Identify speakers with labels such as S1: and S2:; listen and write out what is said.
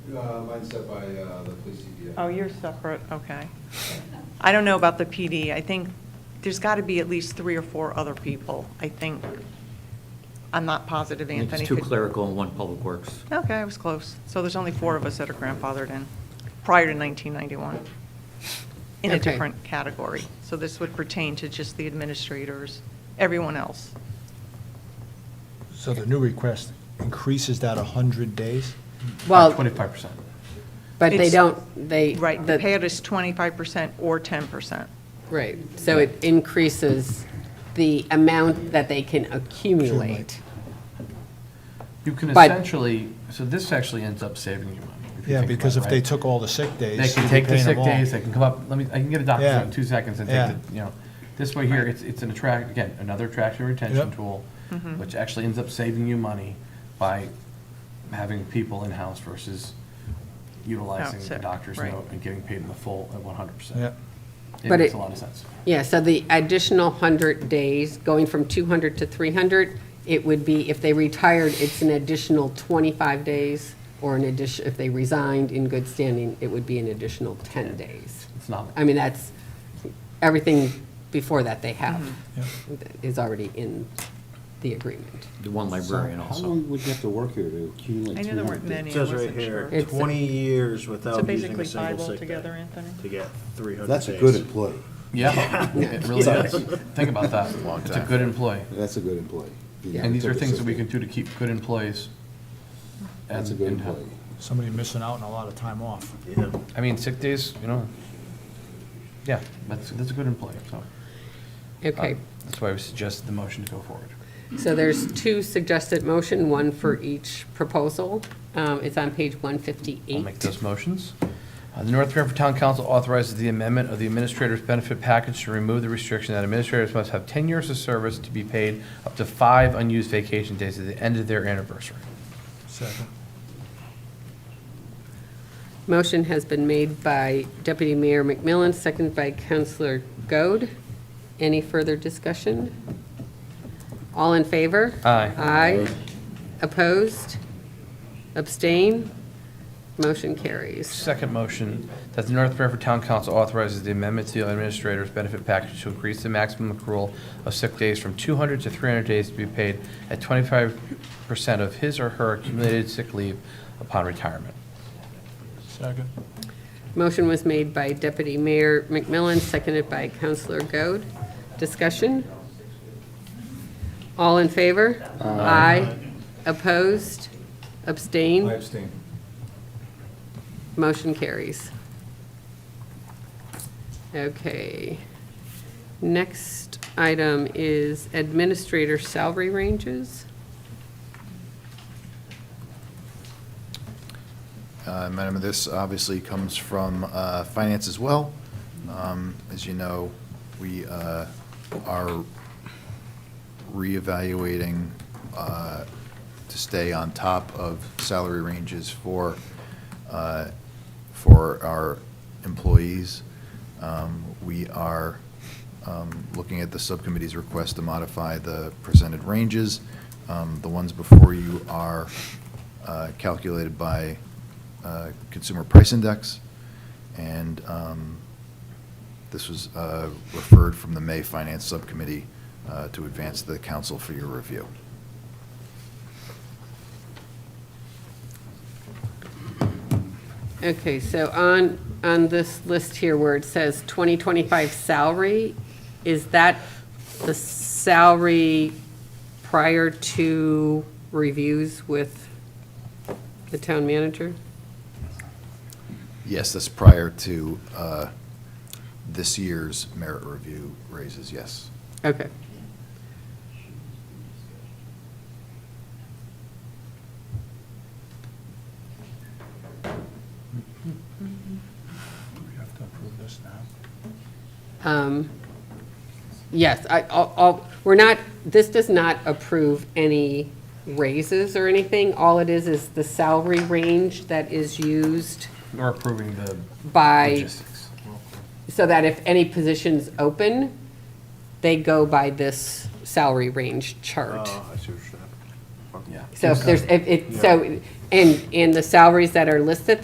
S1: Uh, mine's set by, uh, the police CPA.
S2: Oh, you're separate, okay. I don't know about the PD. I think there's got to be at least three or four other people, I think. I'm not positive,
S3: I think
S2: Anthony.
S3: It's two
S2: could-
S3: clerical and one public works.
S2: Okay, I was close. So there's only four of us that are grandfathered in, prior to 1991, in a
S4: Okay.
S2: different category. So this would pertain to just the administrators, everyone else.
S5: So the new request increases that 100 days?
S4: Well,
S6: Twenty-five percent.
S4: but they
S2: It's-
S4: don't, they.
S2: Right, the
S4: the-
S2: payout is 25% or 10%.
S4: Right, so it increases the amount that they can accumulate.
S6: You can
S4: But-
S6: essentially, so this actually ends up saving you money. if you
S5: Yeah,
S6: think
S5: because
S6: about
S5: if
S6: it,
S5: they
S6: right?
S5: took all the sick days.
S6: They can
S5: you'd be
S6: take the
S5: paying
S6: sick
S5: them all.
S6: days, they can come up, let me, I can get a doctor's
S5: Yeah.
S6: note in two seconds and
S5: Yeah.
S6: take the, you know. This way here, it's, it's an attract, again, another attraction retention
S5: Yep.
S6: tool,
S4: Mm-hmm.
S6: which actually ends up saving you money by having people in-house versus utilizing the
S2: Outside,
S6: doctor's
S2: right.
S6: note and getting paid in the full at one hundred percent.
S5: Yeah,
S6: It
S4: But
S6: makes
S4: it-
S6: a lot of sense.
S4: Yeah, so the additional 100 days, going from 200 to 300, it would be, if they retired, it's an additional 25 days, or an addition, if they resigned in good standing, it would be an additional 10 days.
S6: It's nominal.
S4: I mean, that's, everything before that they have
S5: yeah.
S6: Mm-hmm.
S4: is already in the agreement.
S3: The one librarian
S7: So
S3: also.
S7: How long would you have to work here to accumulate?
S2: I knew there weren't
S7: 300?
S2: many,
S8: It
S2: I
S8: says right
S2: wasn't
S8: here,
S2: sure.
S4: It's-
S8: 20 years
S2: So
S8: without using
S2: basically
S8: a single
S2: five
S8: sick day
S2: altogether, Anthony?
S8: to get 300
S7: That's a
S8: days.
S7: good employee.
S6: Yeah, it really is. Think about that. It's a good employee.
S7: That's a good employee. You never
S6: And these
S7: took
S6: are
S7: a
S6: things
S7: sick
S6: that we
S7: day.
S6: can do to keep good employees.
S7: That's a
S6: and-
S7: good
S6: and help.
S7: employee.
S5: Somebody missing out on a lot of time off.
S8: Yeah.
S6: I mean, sick days, you know, yeah, that's, that's a good employee, so. um,
S4: Okay.
S6: That's why we suggested the motion to go forward.
S4: So there's two suggested motion, one for each proposal. Um, It's on page
S6: I'll make
S4: 158.
S6: those motions. Uh, The North Branford Town Council authorizes the amendment of the administrator's benefit package to remove the restriction that administrators must have 10 years of service to be paid up to five unused vacation days at the end of their anniversary.
S5: Second.
S4: Motion has been made by Deputy Mayor McMillan, seconded by Counselor Goad. Any further discussion? All in favor?
S6: Aye.
S4: Aye. Opposed? Abstain? Motion carries.
S6: Second motion, that the North Branford Town Council authorizes the amendment to the administrator's benefit package to increase the maximum accrual of sick days from 200 to 300 days to be paid at 25% of his or her accumulated sick leave upon retirement.
S5: Second.
S4: Motion was made by Deputy Mayor McMillan, seconded by Counselor Goad. Discussion? All in favor? Aye. Opposed?
S1: I
S4: Abstain?
S1: abstain.
S4: Motion carries. Okay. Next item is administrator salary ranges.
S9: Uh, Madam, this obviously comes from uh, finance as well. Um, As you know, we uh, are reevaluating uh, to stay on top of salary ranges for, uh, for our employees. Um, We are um, looking at the subcommittee's request to modify the presented ranges. Um, The ones before you are uh, calculated by uh, Consumer Price Index, and um, this was uh, referred from the May Finance Subcommittee uh, to advance to the council for your review.
S4: Okay, so on, on this list here where it says 2025 salary, is that the salary prior to reviews with the town manager?
S9: Yes, that's prior to uh, this year's merit review raises, yes.
S4: Okay.
S5: We have to approve this now.
S4: Um, Yes, I, all- all, we're not, this does not approve any raises or anything. All it is, is the salary range that is used
S6: We're approving the
S4: by
S6: logistics.
S4: so that if any positions open, they go by this salary range chart.
S8: Oh, I see what you're saying.
S6: Yeah.
S4: So if there's, if it, so, and, and the salaries that are listed